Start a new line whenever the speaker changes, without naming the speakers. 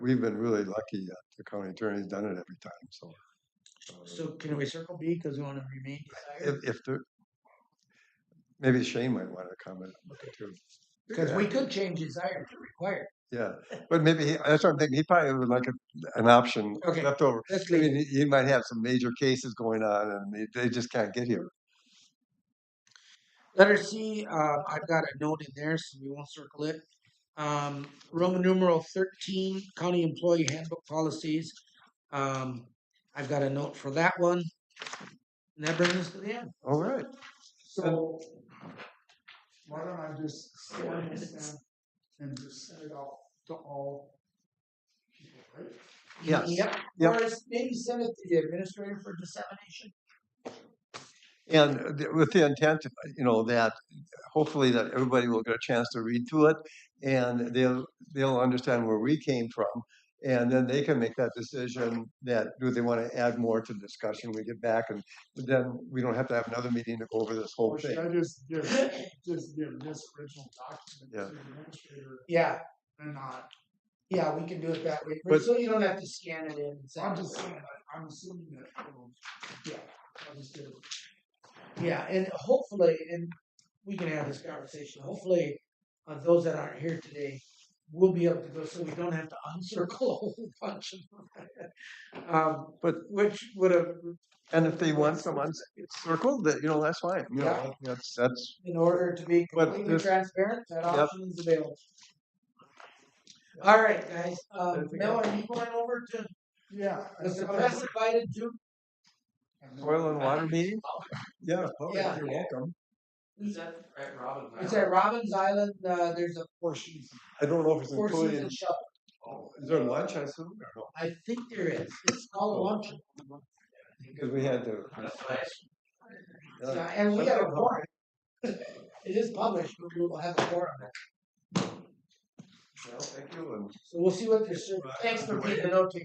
we've been really lucky that the county attorney's done it every time, so. uh,
So can we circle B because we want to remain
If,
desired?
if there, maybe Shane might want to comment on that too.
Because we could change desired to required.
Yeah, but maybe, he- that's what I'm thinking, he probably would like a- an option
Okay.
left over.
Let's
I
leave.
mean, he- he might have some major cases going on and they, they just can't get here.
Letter C, uh, I've got a note in there, so we won't circle it. Um, Roman numeral thirteen, county employee handbook policies. Um, I've got a note for that one. And that brings us to the end.
All right,
So, why don't I just scan this down and just send it off to all people, right?
Yes.
Yep.
Yep.
Or is- maybe send it to the administrator for dissemination.
and uh, the- with the intent, you know, that hopefully that everybody will get a chance to read through it and they'll, they'll understand where we came from. And then they can make that decision that do they want to add more to the discussion we get back and then we don't have to have another meeting to go over this whole
Or should
thing.
I just give, just give this original
Yeah.
document to the administrator
Yeah,
and not,
yeah, we can do it that way.
But-
So you don't have to scan it in. and
so
send
I'm
it.
just saying, I- I'm assuming that, it'll- yeah, I'll just give it.
Yeah, and hopefully, and we can have this conversation, hopefully, uh, those that aren't here today will be able to go, so we don't have to uncircle a whole bunch of them. Um, but,
But-
which would have,
And if they want someone circled, that, you know, that's fine, you know, that's, that's,
in order to be
But
completely
this-
transparent, that
Yep.
option is available. All right, guys, um,
Anything
Mel, are you going over to,
Yeah. I
was the
suppose.
press invited to?
And then-
oil and water meeting? Yeah, well,
Yeah.
you're welcome.
Is that at Robin?
It's at Robbins Island, uh, there's a Four Seasons,
I don't know if it's
Four
included. in-
Seasons shuttle,
Is there lunch, I assume, or no?
I think there is, it's called a luncheon.
Because we had to.
That's what I asked.
Yeah.
Yeah, and we
Let's
have a
go.
warrant. It is published, but we will have a warrant. on it.
Well, thank you, and
So we'll see what they're serving. Thanks for being the note taker.